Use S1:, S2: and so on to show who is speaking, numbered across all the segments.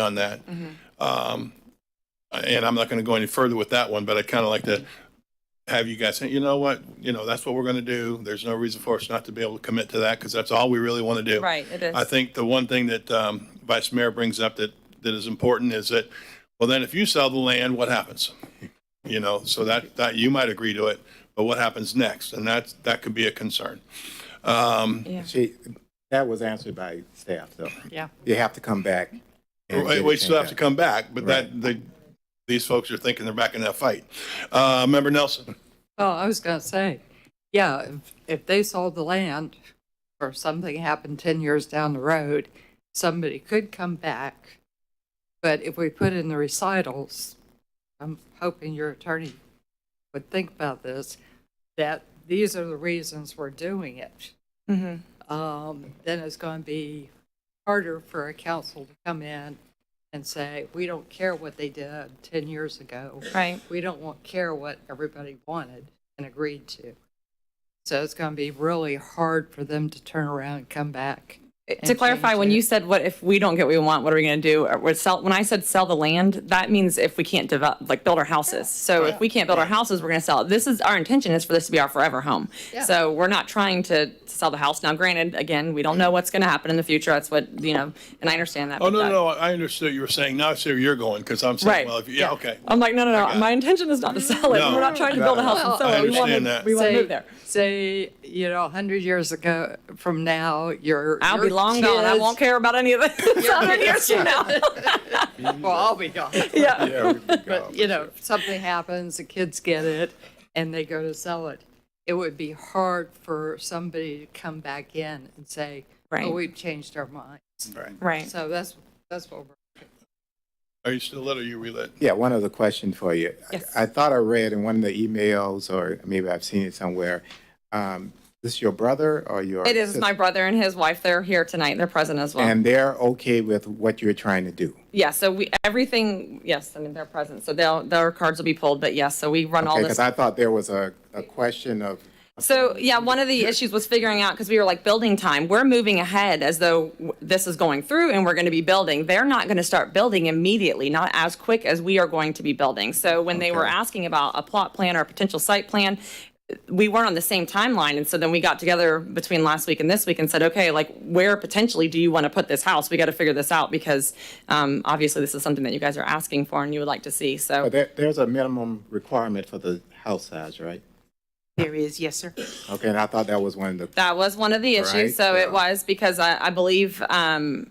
S1: on that. Um, And I'm not going to go any further with that one, but I kind of like to have you guys say, you know what, you know, that's what we're going to do. There's no reason for us not to be able to commit to that because that's all we really want to do.
S2: Right, it is.
S1: I think the one thing that um, Vice Mayor brings up that, that is important is that, well, then if you sell the land, what happens? You know, so that, that, you might agree to it, but what happens next? And that's, that could be a concern. Um,
S3: She, that was answered by staff, though.
S2: Yeah.
S3: You have to come back. and
S1: Right,
S3: get
S1: We
S3: it
S1: still have to
S3: changed.
S1: come back, but that, they, these folks are thinking they're back in that fight. Uh, Member Nelson?
S4: Well, I was going to say, yeah, if, if they sold the land or something happened 10 years down the road, somebody could come back. But if we put in the recitals, I'm hoping your attorney would think about this, that these are the reasons we're doing it. Um, Then it's going to be harder for a council to come in and say, we don't care what they did 10 years ago
S2: Right.
S4: we don't want, care what everybody wanted and agreed to. So it's going to be really hard for them to turn around and come back.
S2: To clarify,
S4: change
S2: when
S4: it.
S2: you said, what if we don't get what we want, what are we going to do? Or what sell, when I said sell the land, that means if we can't develop, like build our houses. So if we can't build our houses, we're going to sell it. This is, our intention is for this to be our forever home.
S4: Yeah.
S2: So we're not trying to sell the house. Now granted, again, we don't know what's going to happen in the future. That's what, you know, and I understand that.
S1: Oh,
S2: but
S1: no,
S2: that-
S1: no, I understood you were saying, now I see where you're going, because I'm saying,
S2: Right. Um,
S1: well, if, you- yeah, okay.
S2: I'm like, no, no,
S1: got
S2: no.
S1: it.
S2: My intention is not to sell it.
S1: No,
S2: We're not trying to
S1: no,
S2: build a house
S1: no.
S2: and sell
S1: I
S2: it. We want
S1: understand that.
S2: to, we want to
S4: say,
S2: move there.
S4: say, you know, 100 years ago from now, your.
S2: I'll be
S4: your
S2: long gone. I
S4: kids-
S2: won't care about any of this. A hundred years from now.
S4: Well, I'll be gone.
S2: Yeah.
S3: Yeah, we can go.
S4: But, you know, if something happens, the kids get it and they go to sell it. It would be hard for somebody to come back in and say, oh,
S2: Right.
S4: we've changed our mind.
S2: Right.
S4: So that's, that's what we're.
S1: Are you still lit or you relit?
S3: Yeah, one other question for you. I-
S2: Yes.
S3: I thought I read in one of the emails, or maybe I've seen it somewhere, um, this your brother or your?
S2: It is my
S3: sister?
S2: brother and his wife. They're here tonight. They're present as well.
S3: And they're okay with what you're trying to do?
S2: yeah. So we everything. Yes. I mean they're present. So they'll their cards will be pulled. But yes. So we run all
S3: Okay,
S2: this.
S3: because I thought there was a, a question of,
S2: So yeah, one of the issues was figuring out because we were like building time. We're moving ahead as though w- this is going through and we're going to be building. They're not going to start building immediately, not as quick as we are going to be building. So when they were
S3: Okay.
S2: asking about a plot plan or a potential site plan, we weren't on the same timeline. And so then we got together between last week and this week and said, okay, like where potentially do you want to put this house? We got to figure this out because um, obviously this is something that you guys are asking for and you would like to see. So
S3: but there, there's a minimum requirement for the house size, right?
S5: There is, yes, sir.
S3: Okay, and I thought that was one of the
S2: That was one of the issues.
S3: Right,
S2: so
S3: yeah.
S2: it was because I, I believe, um,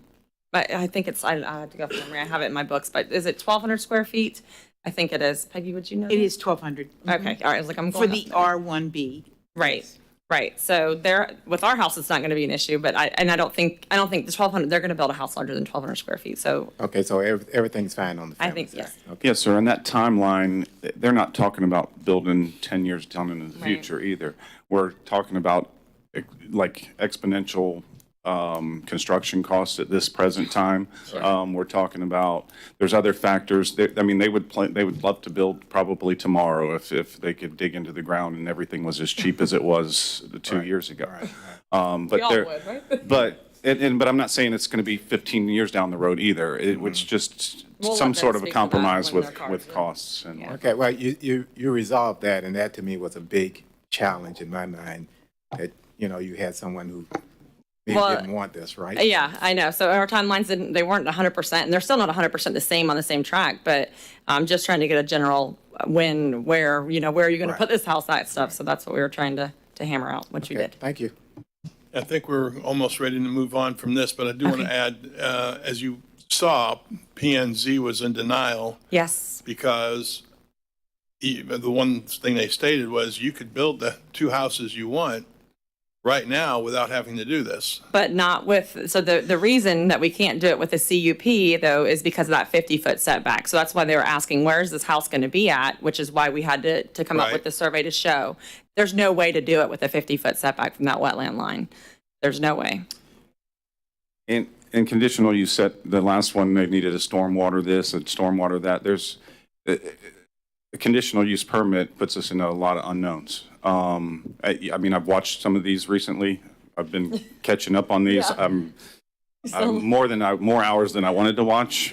S2: I, I think it's, I, I have to go from memory. I have it in my books, but is it 1,200 square feet? I think it is. Peggy, would you know?
S5: It is 1,200
S2: Okay. All right. I was like, I'm
S5: for
S2: going
S5: the
S2: up.
S5: R1B.
S2: Right. Right. So there, with our house, it's not going to be an issue, but I, and I don't think, I don't think the 1,200, they're going to build a house larger than 1,200 square feet. So
S3: Okay, so ev- everything's fine on the
S2: I
S3: family
S2: think, yes.
S3: side? Okay.
S6: Yes, sir, and that timeline, th- they're not talking about building 10 years down into the
S2: Right.
S6: future either. We're talking about ex- like exponential um, construction costs at this present time. Um, We're talking about, there's other factors, that- I mean, they would, pla- they would love to build probably tomorrow if, if they could dig into the ground and everything was as cheap as it was two years ago. Um, But
S2: all
S6: they're-
S2: would, right?
S6: But, and, and, but I'm not saying it's going to be 15 years down the road either. It
S2: Mm-hmm.
S6: was just
S2: We'll let
S6: some
S2: them
S6: sort of a
S2: speak to that
S6: compromise
S2: when their
S6: with,
S2: cards
S6: with
S2: are-
S6: costs and.
S3: Okay, well, you, you, you resolved that, and that to me was a big challenge in my mind, that, you know, you had someone who maybe
S2: Well,
S3: didn't want this, right?
S2: Yeah, I know. So our timelines didn't, they weren't hundred percent and they're still not hundred percent the same on the same track, but I'm just trying to get a general when, where, you know, where are you going to
S3: Right.
S2: put this house at stuff? So that's what we were trying to, to hammer out, which you
S3: Okay,
S2: did.
S3: Thank you.
S1: I think we're almost ready to move on from this, but I do want to add, uh, as you saw, PNZ was in denial
S2: Yes.
S1: because e- the one thing they stated was you could build the two houses you want right now without having to do this.
S2: But not with, so the, the reason that we can't do it with a CUP though is because of that fifty foot setback. So that's why they were asking, where is this house going to be at? Which is why we had to, to come up
S1: Right.
S2: with the survey to show. There's no way to do it with a fifty foot setback from that wetland line. There's no way.
S6: And, and conditional, you said the last one, they needed a stormwater this and stormwater that. There's, uh, a conditional use permit puts us in a lot of unknowns. Um, I, I mean, I've watched some of these recently. I've been catching up on these. I'm, I'm more than I, more hours than I wanted to watch.